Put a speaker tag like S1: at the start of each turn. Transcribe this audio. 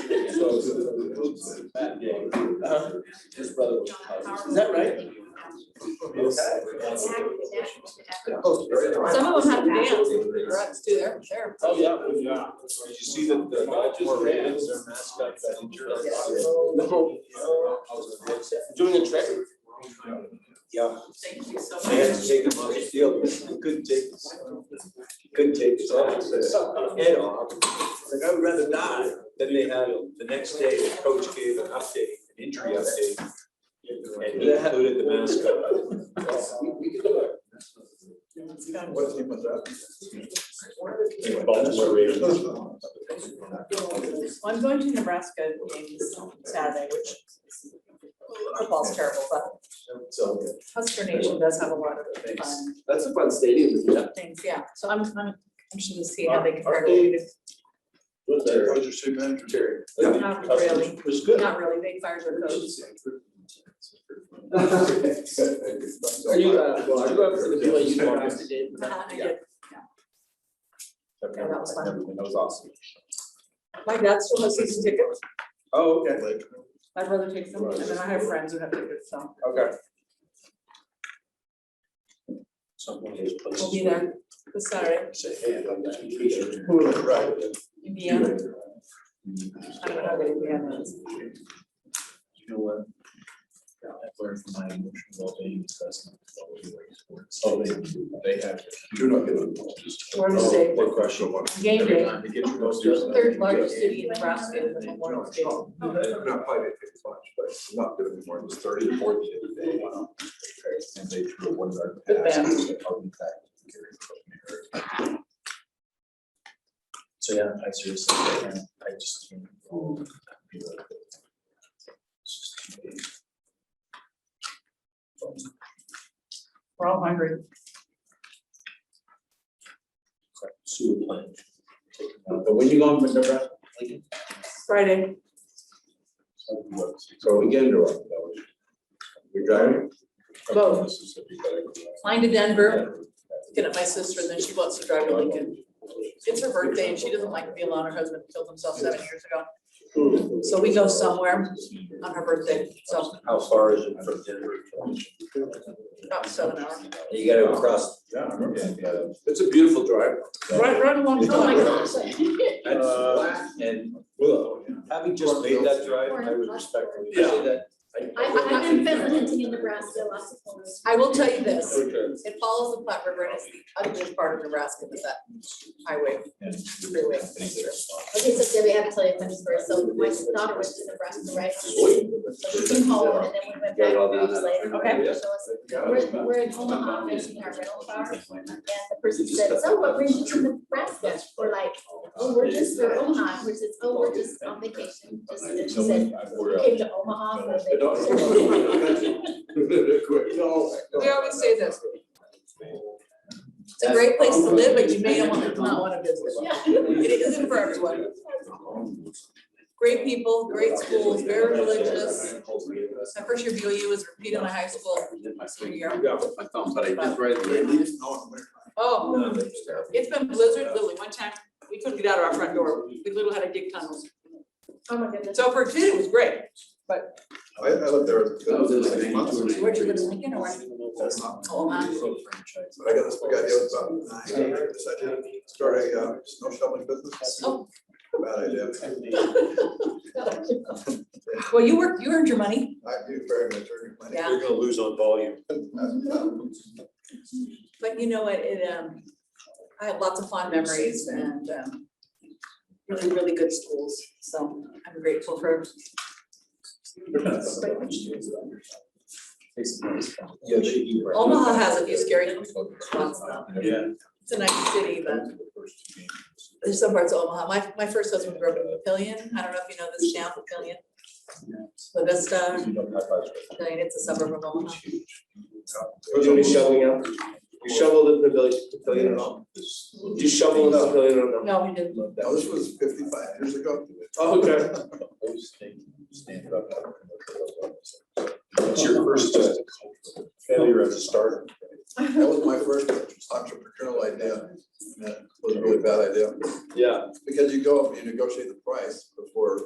S1: So it's the boots and that day.
S2: Uh-huh.
S1: His brother was.
S2: Is that right?
S3: Some of them have to dance, Ruts too, they're, they're.
S1: Oh, yeah, oh, yeah. Did you see that the Moravians, their mascot, that injured?
S2: No. Doing a trick?
S1: Yeah.
S3: Thank you so
S1: They had to take him off the field, couldn't take this, couldn't take this off, head off. Like, I would rather die than they had him. The next day, the coach gave an update, an injury update. And he included the mascot.
S4: What team was that?
S1: Anyway, Baltimore Ravens.
S5: Well, I'm going to Nebraska games Saturday, which is- football's terrible, but
S4: So,
S5: Husker Nation does have a lot of fun
S2: That's a fun stadium, isn't it?
S5: things, yeah. So I'm, I'm interested to see how they compare
S4: Aren't
S5: to,
S4: they-
S5: Wheaton.
S4: was your city manager? Terry.
S5: Not really.
S4: It was good.
S5: not really, they fired their coach.
S2: Are you, uh, well, are you up for the BYU Buckeyes today?
S5: Uh-huh, I did.
S4: Yeah, that was fun. That was awesome.
S5: My dad still has season tickets,
S4: Oh, okay. Like,
S5: my brother takes them, and then I have friends who have tickets, so
S4: okay.
S5: we'll be there this Saturday,
S4: Say, hey, I'm not a teacher. Right.
S5: Indiana. I don't know how good Indiana is.
S4: You know what? I've learned from my emotional well-being assessment. Oh, they, they have. You're not gonna.
S5: We're the same.
S4: One question, one.
S5: Game
S4: Every
S5: day.
S4: time you get your most-
S5: Third largest city in Nebraska, is Memorial Stadium.
S4: I'm not probably they take much, but I'm not doing anymore. It was thirty to forty the other day. And they threw a one yard
S5: Good
S4: pass.
S5: band.
S4: and they held me back. So, yeah, I seriously, I I just can't. be like that. It's just too big.
S5: We're all hungry.
S4: It's like Sewer plant. Taking out- But when you go on the Nebraska. like,
S5: Friday,
S4: something works. So weekend or what? You're driving?
S5: Both.
S4: Mississippi, but I go-
S5: flying to Denver, get at my sister, and then she wants to drive to Lincoln. It's her birthday, and she doesn't like to be alone, her husband killed himself seven years ago. So we go somewhere on her birthday, so
S1: How far is it from Denver?
S5: about seven hours.
S1: You gotta cross.
S4: Yeah, I remember that, yeah.
S1: It's a beautiful drive.
S5: Right, right along, oh my gosh.
S4: Uh,
S1: That's flat and willow. Having just made that drive, I would respectfully say that.
S6: I, I've been visiting in Nebraska, lots of places.
S5: I will tell you this,
S1: Okay.
S5: it follows the Platte River, and it's the ugliest part of Nebraska, is that highway, freeway.
S6: Okay, so Debbie, I have to tell you, I'm sorry, so my daughter went to Nebraska, right? So she came home and then we went back three years later.
S5: Okay.
S6: So it's- We're, we're in Omaha facing our rental car and the person said, so what brings you to Nebraska? We're like, oh, we're just, we're Omaha, we're just, oh, we're just on vacation, just, and she said, we came to Omaha for vacation.
S5: We always say this, it's a great place to live, but you may not want to, not want to visit. It isn't for everyone. Great people, great schools, very religious. My first year BOU was repeated my high school senior year.
S2: My thumb, but I did right there.
S5: Oh, it's been blizzard, literally, one time, we couldn't get out of our front door, we literally had to dig tunnels.
S6: Oh, my goodness.
S5: So for a kid, it was great.
S4: I, I lived there.
S2: That was it, like, months ago.
S5: Where'd you go to Lincoln or what?
S4: That's not.
S5: Oh, man.
S4: But I got this big idea about, I decided to start a, uh, snow shoveling business.
S5: Oh.
S4: Bad idea.
S5: Well, you worked, you earned your money.
S4: I do very much earn money.
S5: Yeah.
S1: You're gonna lose on volume.
S5: But you know what, it, um, I have lots of fond memories and, um, really, really good schools, so I'm grateful for.
S4: Yeah, they do. right.
S5: Omaha has a few scary spots though.
S1: Yeah.
S5: It's a nice city, but there's some parts of Omaha. My, my first husband grew up in Papillion. I don't know if you know this town, Papillion. La
S2: Um,
S5: Vista, Papillion, it's a suburb of Omaha.
S1: Was there any shoveling out? You shoveled in the village pavilion at all? You shoveled in the pavilion or no?
S5: No, we didn't.
S4: Now, this was fifty-five years ago.
S1: Oh, okay.
S4: It's your first uh, failure as a starter. That was my first entrepreneurial idea. and That was a really bad idea,
S1: Yeah.
S4: because you go up and you negotiate the price before